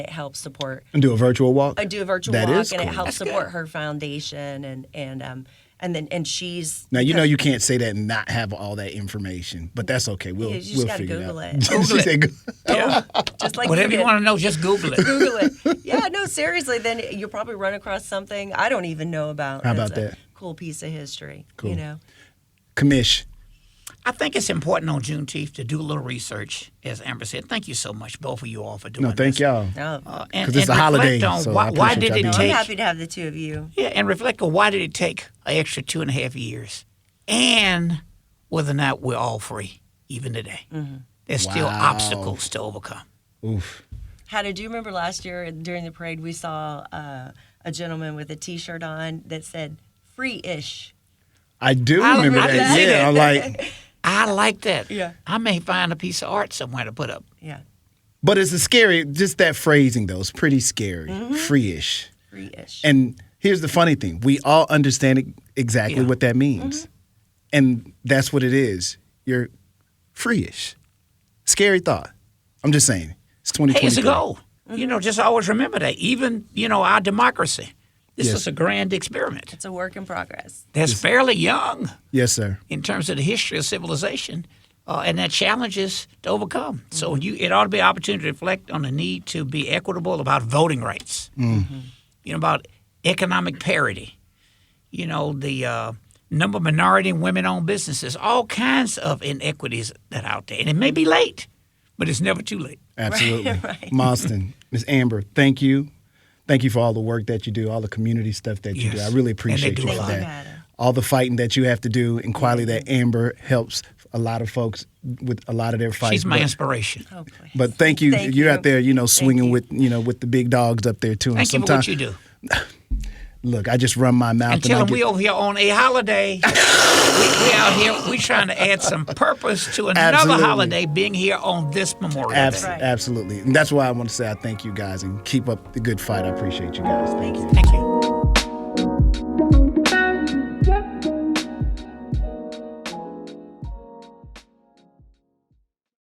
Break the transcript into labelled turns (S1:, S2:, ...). S1: It helps support.
S2: And do a virtual walk.
S1: I do a virtual
S2: That
S1: walk,
S2: is
S1: and
S2: cool.
S1: it helps support her foundation, and and um and then and she's
S2: Now you know you can't say that and not have all that information, but that's okay. We'll
S1: You just
S2: we'll
S1: gotta
S2: figure
S1: Google
S2: it out.
S1: it.
S2: She said go-
S1: yeah, just like
S3: Whatever
S1: you,
S3: Oh, you
S1: did.
S3: want to know, just Google it.
S1: Google it. Yeah, no, seriously. Then you'll probably run across something I don't even know about.
S2: How
S1: that's
S2: about
S1: a
S2: that?
S1: Cool piece of history.
S2: Cool.
S1: You know.
S2: Commish.
S3: I think it's important on Juneteenth to do a little research, as Amber said. Thank you so much, both of you all, for doing
S2: No, thank
S3: this.
S2: y'all.
S1: No.
S3: Uh, and-
S2: 'Cause it's
S3: and
S2: a holiday,
S3: reflect on
S2: so
S3: why,
S2: I
S3: why
S2: appreciate
S3: did
S2: y'all
S3: it
S1: No, I'm
S2: being
S3: take?
S1: happy to have the two of you.
S3: Yeah, and reflect on why did it take an extra two and a half years, and whether or not we're all free even today. There's still
S2: Wow.
S3: obstacles to overcome.
S2: Oof.
S1: Hannah, do you remember last year during the parade we saw uh, a gentleman with a T-shirt on that said "free-ish"?
S2: I do
S3: I-
S2: remember
S3: I
S2: that.
S3: did
S2: yeah,
S3: it.
S2: I'm like,
S3: I like that.
S1: Yeah.
S3: I may find a piece of art somewhere to put up.
S1: Yeah,
S2: but it's a scary. Just that phrasing though, it's pretty scary,
S1: Mm-hmm.
S2: free-ish.
S1: free-ish.
S2: And here's the funny thing: we all understand it- exactly
S3: Yeah.
S2: what that
S1: Mm-hmm.
S2: means, and that's what it is. You're free-ish. Scary thought. I'm just saying. It's 2020.
S3: Hey, it's a goal. You know, just always remember that. Even you know our democracy. This
S2: Yes.
S3: is a grand experiment.
S1: it's a work in progress.
S3: That's fairly young.
S2: Yes, sir.
S3: in terms of the history of civilization uh, and that challenges to overcome. So
S2: Mm-hmm.
S3: you, it ought to be an opportunity to reflect on the need to be equitable about voting rights,
S2: Mm-hmm.
S3: you know, about economic parity, you know, the uh, number of minority and women-owned businesses, all kinds of inequities that are out there. And it may be late, but it's never too late.
S2: Absolutely.
S1: right.
S2: Marston, Miss Amber, thank you. Thank you for all the work that you do, all the community stuff that you do. I
S3: Yes. And
S2: really
S3: they
S2: appreciate
S3: do
S2: you
S3: a
S2: for
S3: lot.
S2: that.
S1: Thank you, Adam.
S2: All the fighting that you have to do and quality that
S1: Mm-hmm.
S2: Amber helps a lot of folks with a lot of their fights.
S3: She's my
S2: but,
S3: inspiration.
S1: Oh, please.
S2: but thank you.
S1: Thank
S2: You're
S1: you.
S2: out there, you know,
S1: Thank
S2: swinging
S1: you.
S2: with, you know, with the big dogs up there too. And
S3: Thank you for
S2: sometimes
S3: what you do.
S2: look, I just run my mouth
S3: And tell
S2: I
S3: them
S2: get-
S3: we over here on a holiday. we, we out here. We trying to add some purpose to another
S2: Absolutely.
S3: holiday being here on this Memorial
S2: Abs-
S3: Day.
S1: Right.
S2: absolutely. And that's why I want to say I thank you guys and keep up the good fight. I appreciate you guys. Thank you.
S3: Thank you.